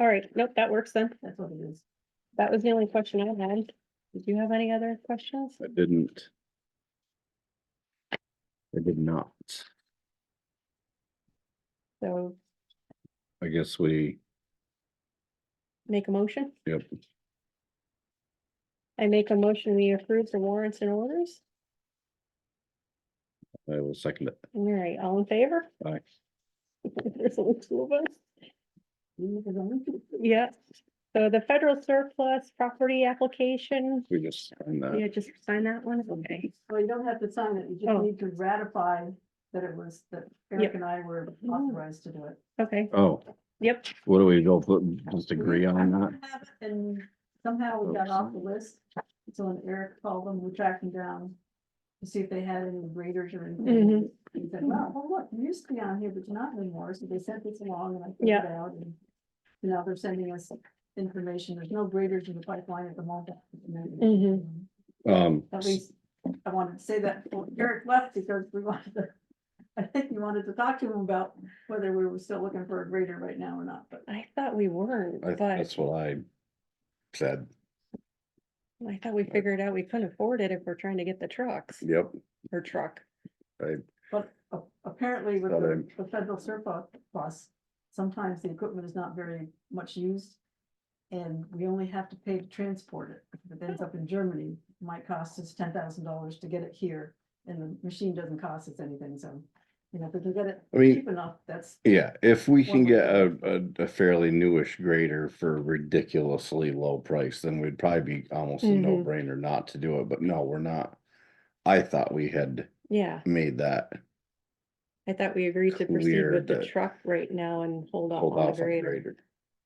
All right, nope, that works then. That's what it is. That was the only question I had. Did you have any other questions? I didn't. I did not. So I guess we, make a motion. yep, I make a motion, we approve the warrants and orders. I will second it. All right, all in favor? Aye. There's only two of us. You need to go. Yeah. So the federal surplus property application, We just signed that. you just sign that one, okay? Well, you don't have to sign it, you Oh. just need to ratify that it was, that Yep. Eric and I were authorized to do it. Okay, Oh, yep, what do we go, put- just agree on I that? don't have it, And somehow we got off the list, so when Eric called them, we're tracking down to see if they had any graders or anything. Mhm. He said, well, well, look, you used to be on here, but you're not anymore, so they sent this along and I filled Yeah. it out and now they're sending us information, there's no graders in the pipeline at the moment. Mm-hmm. Mhm. Um, At least, I wanted to say that before Eric left because we wanted to, I think you wanted to talk to him about whether we were still looking for a grader right now or not, but. I thought we weren't, I- but that's what I said. I thought we figured out we couldn't afford it if we're trying to get the trucks Yep, or truck. I, But a- apparently with But, the um, the federal surplus, sometimes the equipment is not very much used. And we only have to pay to transport it. If it ends up in Germany, it might cost us ten thousand dollars to get it here. And the machine doesn't cost us anything, so, you know, if we can get it I mean- cheap enough, that's, yeah, if we can One get way. a, a, a fairly newish grader for ridiculously low price, then we'd probably be almost a Mhm. no brainer not to do it, but no, we're not. I thought we had Yeah, made that. I thought we agreed to proceed Clear with the that- truck right now and hold off Hold on the off on grader. grader.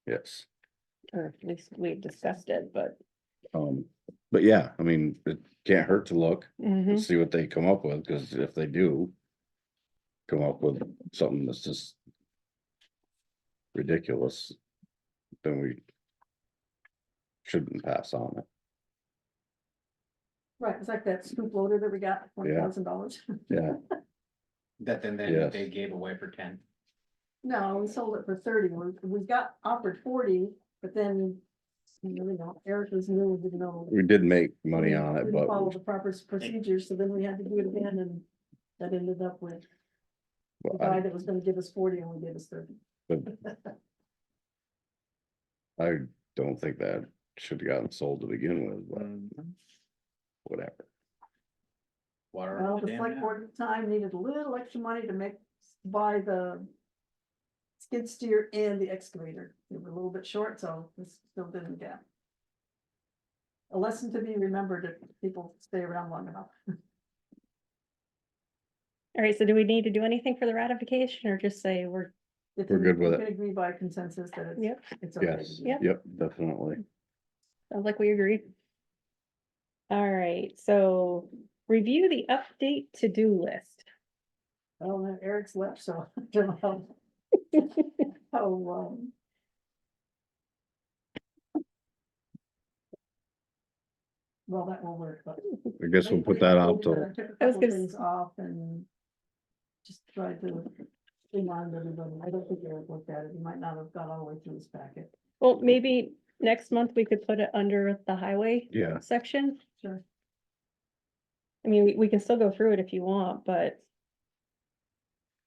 Yes, Or at least we discussed it, but. um, but yeah, I mean, it can't hurt to look. Mhm. Mm-hmm. and see what they come up with, cause if they do. Come up with something that's just. Ridiculous. Then we. Shouldn't pass on it. right, it's like that scoop loader that we got, one thousand dollars. Yeah, That then they, Yes. they gave away for ten. No, we sold it for thirty. We, we got offered forty, but then, you know, Eric was new, and didn't know. we did make money we on it, didn't but Follow the proper s- procedures, so then we had to do it again, and that ended up with the but guy I, that was gonna give us forty only gave us thirty. I don't think that should have gotten sold to begin with, but whatever. Water. Well, off the the dam select now. board at the time needed a little extra money to make, buy the skid steer and the excavator. They were a little bit short, so this filled in the gap. A lesson to be remembered if people stay around long enough. All right, so do we need to do anything for the ratification or just say we're, If We're you- good with you it. can Agree by consensus that it's. Yep. It's okay. to Yes, do. Yep. yep, definitely. sounds like we agree? All right, so review the update to-do list. I don't know, Eric's left, so I don't know how um, long. Well, that won't work, but. I guess we'll put that out I till, took a I was couple gonna s- Things off and just tried to remind everybody. I don't think Eric looked at it. He might not have got all the way through his packet. Well, maybe next month we could put it under the highway yeah, section. Sure. I mean, we, we can still go through it if you want, but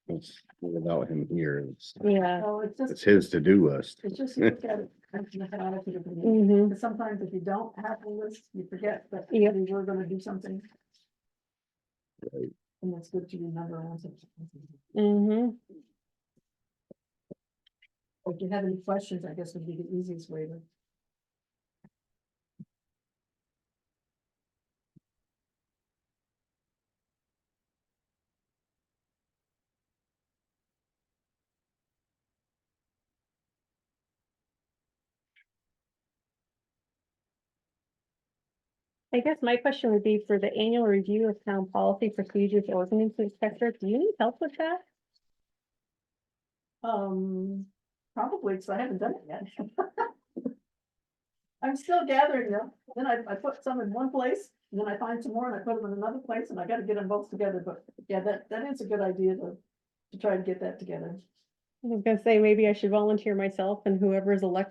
it's- without him here, it's, yeah. Well, Oh, it's just, it's his to-do list. it's just you look at it. and you have an attitude of the meeting. mhm. Because sometimes if you don't have the list, you forget that we Yep. were gonna do something. Right. And that's good to remember. once it's- Mm-hmm, If you have any questions, I guess would be the easiest way to. I guess my question would be for the annual review of town policy procedures, ordinance inspector, do you need help with that? Um, probably, because I haven't done it yet. I'm still gathering them, then I, I put some in one place, and then I find some more and I put them in another place, and I gotta get them both together, but yeah, that, that is a good idea to, to try and get that together. I was gonna say, maybe I should volunteer myself and whoever is elected